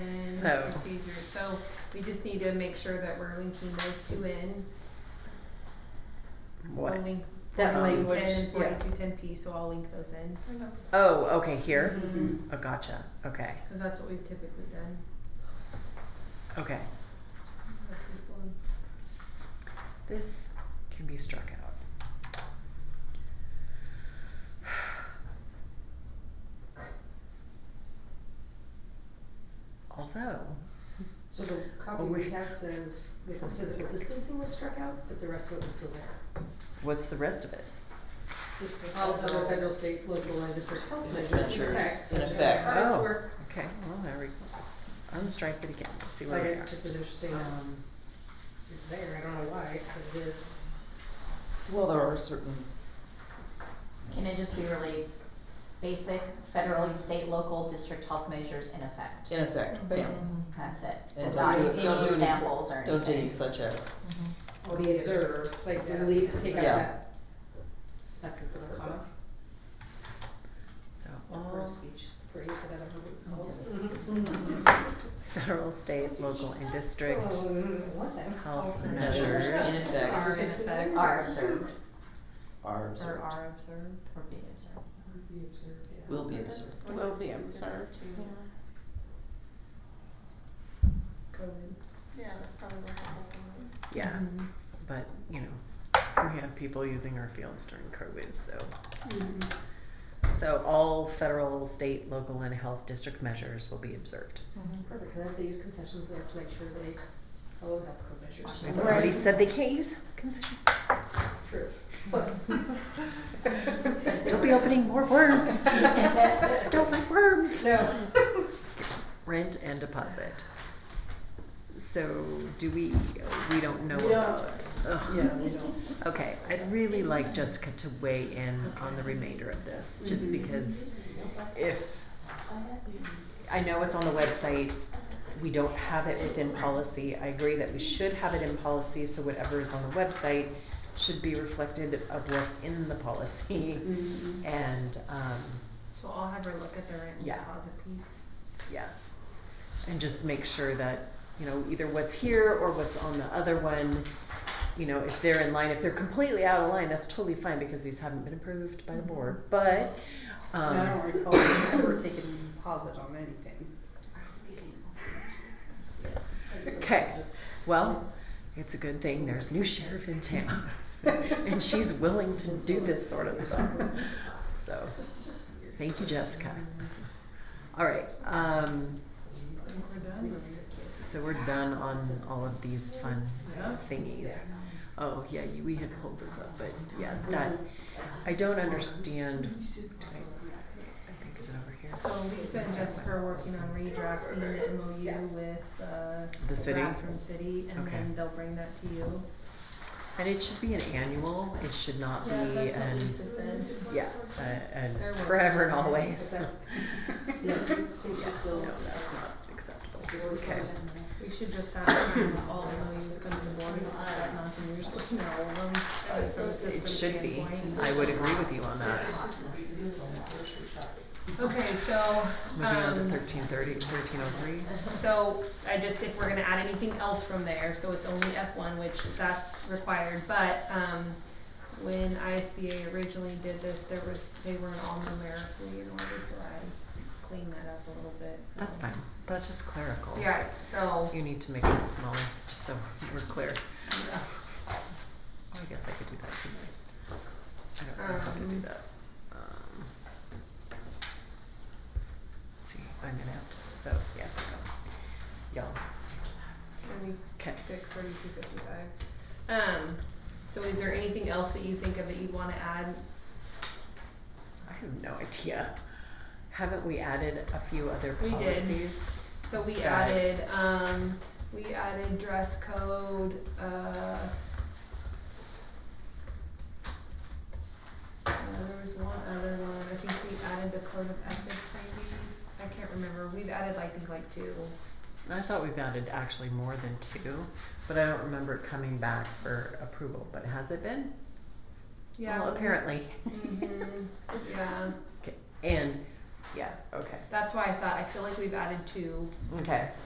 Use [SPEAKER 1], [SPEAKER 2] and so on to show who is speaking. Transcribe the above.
[SPEAKER 1] So-
[SPEAKER 2] and procedures, so we just need to make sure that we're linking those two in.
[SPEAKER 1] What?
[SPEAKER 2] I'll link
[SPEAKER 3] That
[SPEAKER 2] forty-two
[SPEAKER 3] language,
[SPEAKER 2] ten and
[SPEAKER 3] yeah.
[SPEAKER 2] forty-two ten P, so I'll link those in,
[SPEAKER 1] Oh, okay, here?
[SPEAKER 4] Mm-hmm.
[SPEAKER 3] Mhm.
[SPEAKER 1] Oh, gotcha. Okay,
[SPEAKER 2] cause that's what we've typically done.
[SPEAKER 1] okay.
[SPEAKER 2] with this one.
[SPEAKER 1] This can be struck out. Although,
[SPEAKER 3] So the copy
[SPEAKER 1] Oh, we-
[SPEAKER 3] we have says that the physical distancing was struck out, but the rest of it was still there.
[SPEAKER 1] what's the rest of it?
[SPEAKER 3] All of the federal, state, local, and district health
[SPEAKER 4] And
[SPEAKER 3] measures in
[SPEAKER 4] measures
[SPEAKER 3] effect.
[SPEAKER 4] in
[SPEAKER 3] such as
[SPEAKER 4] effect.
[SPEAKER 3] artist
[SPEAKER 1] Oh.
[SPEAKER 3] work.
[SPEAKER 1] Okay, well, there we go. Let's unstrike it again. Let's see where
[SPEAKER 3] But
[SPEAKER 1] we
[SPEAKER 3] it
[SPEAKER 1] are.
[SPEAKER 3] just is interesting, um, it's there, I don't know why, but it is.
[SPEAKER 4] Well, there are certain,
[SPEAKER 5] Can it just be really basic, federal and state, local, district health measures in effect?
[SPEAKER 4] in effect, bam.
[SPEAKER 5] That's it.
[SPEAKER 4] And
[SPEAKER 5] Not
[SPEAKER 4] don't do-
[SPEAKER 5] any
[SPEAKER 4] don't do any s-
[SPEAKER 5] examples or anything.
[SPEAKER 4] Don't do any such as.
[SPEAKER 3] Or be observed, like, we leave, take out
[SPEAKER 4] Yeah.
[SPEAKER 3] that sentence of a cause,
[SPEAKER 1] So
[SPEAKER 3] or a
[SPEAKER 1] all
[SPEAKER 3] speech phrase, whatever it's called.
[SPEAKER 1] federal, state, local, and district
[SPEAKER 3] Oh, what the hell?
[SPEAKER 1] health
[SPEAKER 4] Measures in
[SPEAKER 1] measures
[SPEAKER 4] effect
[SPEAKER 2] Are in effect,
[SPEAKER 5] Are observed
[SPEAKER 4] are
[SPEAKER 2] or
[SPEAKER 4] observed.
[SPEAKER 2] are observed.
[SPEAKER 5] or be observed.
[SPEAKER 4] Will be observed.
[SPEAKER 2] Will be observed, COVID.
[SPEAKER 6] Yeah, that's probably what the whole thing is.
[SPEAKER 1] Yeah, but you know, we have people using our fields during COVID, so.
[SPEAKER 3] Mm-hmm.
[SPEAKER 1] So all federal, state, local, and health district measures will be observed.
[SPEAKER 5] Mm-hmm.
[SPEAKER 3] Perfect, and if they use concessions, they have to make sure they follow health code measures.
[SPEAKER 1] We've already said they can't use concession.
[SPEAKER 3] True.
[SPEAKER 1] Don't be opening more worms. Don't like worms.
[SPEAKER 3] No.
[SPEAKER 1] Rent and deposit. So do we, we don't know
[SPEAKER 3] We don't.
[SPEAKER 1] about. Ugh.
[SPEAKER 3] Yeah, we don't.
[SPEAKER 1] Okay, I'd really like Jessica to weigh in on the remainder of this, just
[SPEAKER 3] Mhm.
[SPEAKER 1] because if, I know it's on the website, we don't have it within policy. I agree that we should have it in policy, so whatever is on the website should be reflected of what's in the policy.
[SPEAKER 3] Mhm.
[SPEAKER 1] And, um,
[SPEAKER 2] So I'll have her look at the rent and
[SPEAKER 1] Yeah.
[SPEAKER 2] deposit piece.
[SPEAKER 1] yeah. And just make sure that, you know, either what's here or what's on the other one, you know, if they're in line, if they're completely out of line, that's totally fine because these haven't been approved by the board, but, um.
[SPEAKER 7] I don't recall ever taking deposit on anything.
[SPEAKER 1] Okay, well, it's a good thing there's a new sheriff in town, and she's willing to do this sort of stuff. So, thank you, Jessica. All right, um, so we're done on all of these fun thingies. Oh, yeah, you- we had pulled this up, but yeah, that, I don't understand. I- I think is it over here?
[SPEAKER 2] So Lisa and Jessica are working on redrafting the MOU with, uh,
[SPEAKER 1] The city?
[SPEAKER 2] draft From city, and
[SPEAKER 1] Okay.
[SPEAKER 2] then they'll bring that to you.
[SPEAKER 1] And it should be an annual, it should not be
[SPEAKER 2] Yeah,
[SPEAKER 1] an.
[SPEAKER 2] that's what Lisa said.
[SPEAKER 1] Yeah, uh, and
[SPEAKER 2] They're working
[SPEAKER 1] forever and
[SPEAKER 2] on it,
[SPEAKER 1] always.
[SPEAKER 2] but
[SPEAKER 3] No, I
[SPEAKER 1] Yeah,
[SPEAKER 3] think she's still.
[SPEAKER 1] No, that's not acceptable. Okay.
[SPEAKER 2] We should just have um, all MOUs come to the board, and it's not nothing, you're just looking at all of them uh, from a
[SPEAKER 1] It
[SPEAKER 2] system
[SPEAKER 1] should be.
[SPEAKER 2] standpoint.
[SPEAKER 1] I would agree with you on that.
[SPEAKER 2] Okay, so,
[SPEAKER 1] Moving on to
[SPEAKER 2] um,
[SPEAKER 1] thirteen thirty, thirteen oh three.
[SPEAKER 2] so I just, if we're gonna add anything else from there, so it's only F one, which that's required, but, um, when ISBA originally did this, there was, they weren't all numerically in order, so I cleaned that up a little bit, so.
[SPEAKER 1] That's fine. That's just clerical.
[SPEAKER 2] Yeah, so,
[SPEAKER 1] You need to make this smaller, just so we're clear.
[SPEAKER 2] yeah.
[SPEAKER 1] Oh, I guess I could do that tonight. I don't know how to do
[SPEAKER 2] Um,
[SPEAKER 1] that. Um, let's see, I'm gonna have to, so, yeah, there we go. Y'all,
[SPEAKER 2] Let me
[SPEAKER 1] okay.
[SPEAKER 2] Six thirty-two fifty-five. Um, so is there anything else that you think of that you'd wanna add?
[SPEAKER 1] I have no idea. Haven't we added a few other
[SPEAKER 2] We did.
[SPEAKER 1] policies?
[SPEAKER 2] So we
[SPEAKER 1] Right.
[SPEAKER 2] added, um, we added dress code, uh. uh, There was one other one, I think we added the code of ethics maybe, I can't remember, we've added like, I think like two.
[SPEAKER 1] I thought we've added actually more than two, but I don't remember it coming back for approval, but has it been?
[SPEAKER 2] Yeah.
[SPEAKER 1] Well,
[SPEAKER 2] we-
[SPEAKER 1] apparently.
[SPEAKER 2] Mhm, yeah,
[SPEAKER 1] Okay, and, yeah, okay,
[SPEAKER 2] that's why I thought, I feel like we've added two.
[SPEAKER 1] okay,